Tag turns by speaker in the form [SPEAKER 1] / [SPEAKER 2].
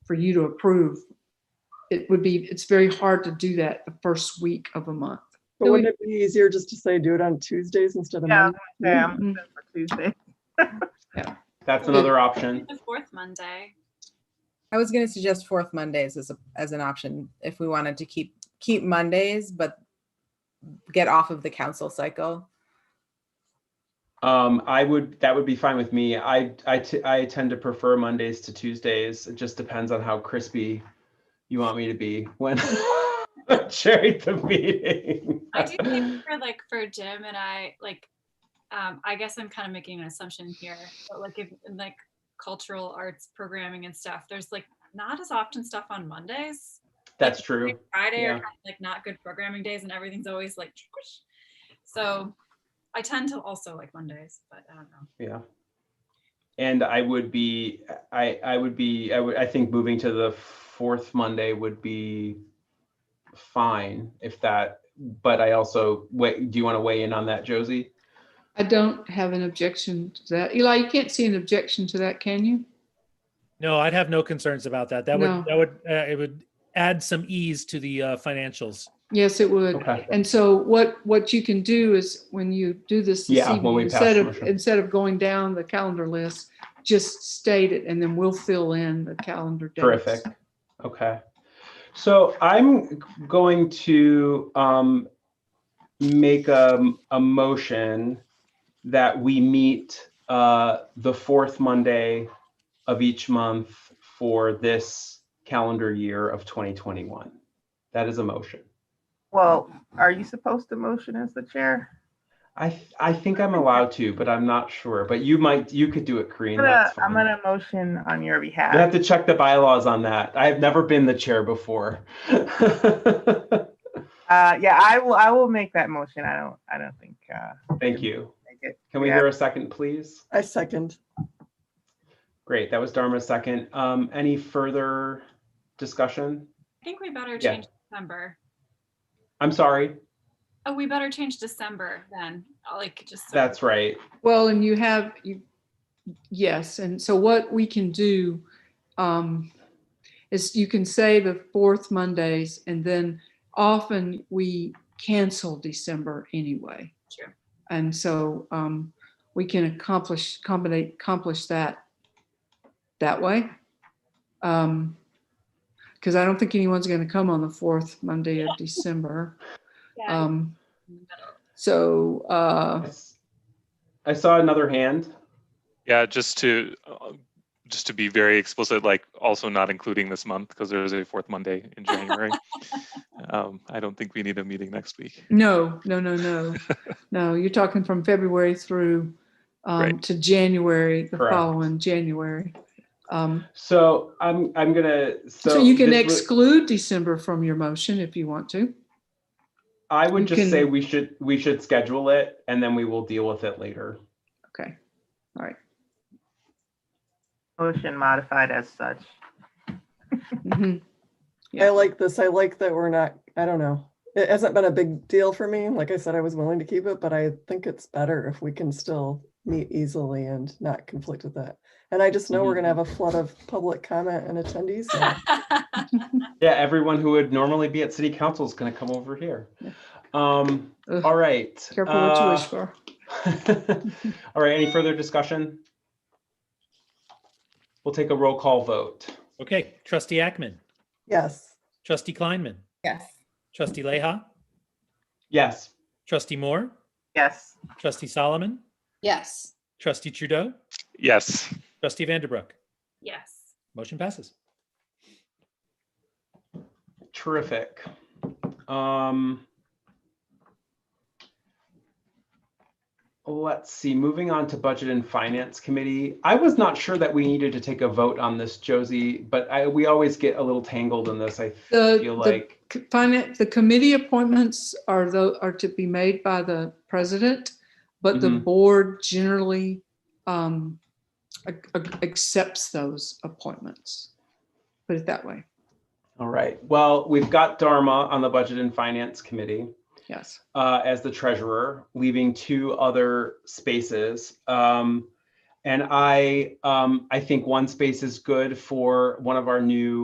[SPEAKER 1] for you to approve. It would be, it's very hard to do that the first week of a month.
[SPEAKER 2] But wouldn't it be easier just to say do it on Tuesdays instead of
[SPEAKER 3] Yeah.
[SPEAKER 2] Mondays?
[SPEAKER 3] Yeah,
[SPEAKER 1] Mm-hmm.
[SPEAKER 3] I'm good for Tuesday.
[SPEAKER 4] That's
[SPEAKER 5] Hmm.
[SPEAKER 4] another option.
[SPEAKER 5] The fourth Monday.
[SPEAKER 6] I was going to suggest fourth Mondays as a, as an option if we wanted to keep keep Mondays, but get off of the council cycle.
[SPEAKER 4] Um, I would, that would be fine with me. I, I, t- I tend to prefer Mondays to Tuesdays. It just depends on how crispy you want me to be when chairing the meeting.
[SPEAKER 5] I do think for like for Jim and I, like, um, I guess I'm kind of making an assumption here, but like if in like cultural arts programming and stuff, there's like not as often stuff on Mondays.
[SPEAKER 4] That's true.
[SPEAKER 5] Friday
[SPEAKER 4] Yeah.
[SPEAKER 5] are kind of like not good programming days and everything's always like squish. So I tend to also like Mondays, but I don't know.
[SPEAKER 4] Yeah. And I would be, I, I would be, I would, I think moving to the fourth Monday would be fine if that, but I also, wait, do you want to weigh in on that, Josie?
[SPEAKER 1] I don't have an objection to that. Eli, you can't see an objection to that, can you?
[SPEAKER 7] No, I'd have no concerns about that. That
[SPEAKER 1] No.
[SPEAKER 7] would that would uh, it would add some ease to the uh, financials.
[SPEAKER 1] Yes, it would.
[SPEAKER 4] Okay.
[SPEAKER 1] And so what, what you can do is when you do this this
[SPEAKER 4] Yeah, when
[SPEAKER 1] evening,
[SPEAKER 4] we pass
[SPEAKER 1] instead
[SPEAKER 4] the
[SPEAKER 1] of,
[SPEAKER 4] motion.
[SPEAKER 1] instead of going down the calendar list, just state it and then we'll fill in the calendar dates.
[SPEAKER 4] Terrific. Okay. So I'm going to um, make a, a motion that we meet uh, the fourth Monday of each month for this calendar year of 2021. That is a motion.
[SPEAKER 3] Well, are you supposed to motion as the chair?
[SPEAKER 4] I, th- I think I'm allowed to, but I'm not sure. But you might, you could do it, Corinne.
[SPEAKER 3] I'm gonna,
[SPEAKER 4] that's
[SPEAKER 3] I'm
[SPEAKER 4] fine.
[SPEAKER 3] gonna motion on your
[SPEAKER 4] You have
[SPEAKER 3] behalf.
[SPEAKER 4] to check the bylaws on that. I've never been the chair before.
[SPEAKER 3] Uh, yeah, I will, I will make that motion. I don't, I don't think, uh,
[SPEAKER 4] Thank you.
[SPEAKER 3] make it.
[SPEAKER 4] Can we
[SPEAKER 3] Yeah.
[SPEAKER 4] hear a second, please?
[SPEAKER 2] I second.
[SPEAKER 4] Great, that was Dharma's second. Um, any further discussion?
[SPEAKER 5] I think we better
[SPEAKER 4] Yeah.
[SPEAKER 5] change December.
[SPEAKER 4] I'm sorry,
[SPEAKER 5] Oh, we better change December then. Like just so-
[SPEAKER 4] that's right.
[SPEAKER 1] Well, and you have, you, yes, and so what we can do um, is you can say the fourth Mondays, and then often we cancel December anyway.
[SPEAKER 5] Sure.
[SPEAKER 1] And so um, we can accomplish, combinate, accomplish that that way. Because I don't think anyone's going to come on the fourth Monday of December.
[SPEAKER 5] Yeah,
[SPEAKER 1] Um, So, uh,
[SPEAKER 4] I s- I saw another hand.
[SPEAKER 8] Yeah, just to, uh, just to be very explicit, like also not including this month because there is a fourth Monday in January. Um, I don't think we need a meeting next week.
[SPEAKER 1] No, no, no, no. No, you're talking from February through um,
[SPEAKER 8] Right.
[SPEAKER 1] to January, the
[SPEAKER 4] Correct.
[SPEAKER 1] following January. Um,
[SPEAKER 4] So I'm, I'm gonna, so.
[SPEAKER 1] So you can
[SPEAKER 4] this was-
[SPEAKER 1] exclude December from your motion if you want to.
[SPEAKER 4] I would
[SPEAKER 1] you
[SPEAKER 4] just
[SPEAKER 1] can-
[SPEAKER 4] say we should, we should schedule it and then we will deal with it later.
[SPEAKER 1] Okay, all right.
[SPEAKER 3] Motion modified as such.
[SPEAKER 1] Mhm. Yeah.
[SPEAKER 2] I like this. I like that we're not, I don't know. It hasn't been a big deal for me. Like I said, I was willing to keep it, but I think it's better if we can still meet easily and not conflict with that. And I just know we're gonna have a flood of public comment and attendees. so-
[SPEAKER 4] Yeah, everyone who would normally be at city council is gonna come over here. Um,
[SPEAKER 1] Ugh,
[SPEAKER 4] all right.
[SPEAKER 1] Careful what you
[SPEAKER 4] uh,
[SPEAKER 1] wish for.
[SPEAKER 4] All right, any further discussion? We'll take a roll call vote.
[SPEAKER 7] Okay, Trustee Ackman,
[SPEAKER 2] Yes.
[SPEAKER 7] Trustee Kleinman,
[SPEAKER 6] Yes.
[SPEAKER 7] Trustee Leha,
[SPEAKER 4] Yes.
[SPEAKER 7] Trustee Moore,
[SPEAKER 3] Yes,
[SPEAKER 7] Trustee Solomon,
[SPEAKER 6] Yes.
[SPEAKER 7] Trustee Trudeau,
[SPEAKER 8] Yes,
[SPEAKER 7] Trustee Vanderbrook.
[SPEAKER 5] yes.
[SPEAKER 7] Motion passes.
[SPEAKER 4] Terrific. Um, let's see, moving on to Budget and Finance Committee. I was not sure that we needed to take a vote on this, Josie, but I, we always get a little tangled in this, I
[SPEAKER 1] The-
[SPEAKER 4] feel
[SPEAKER 1] the-
[SPEAKER 4] like.
[SPEAKER 1] C- Finance, the committee appointments are though, are to be made by the president, but the
[SPEAKER 4] Mhm.
[SPEAKER 1] board generally um, ac- ac- accepts those appointments. Put it that way,
[SPEAKER 4] All right, well, we've got Dharma on the Budget and Finance Committee.
[SPEAKER 1] yes.
[SPEAKER 4] uh, as the treasurer, leaving two other spaces. Um, and I, um, I think one space is good for one of our new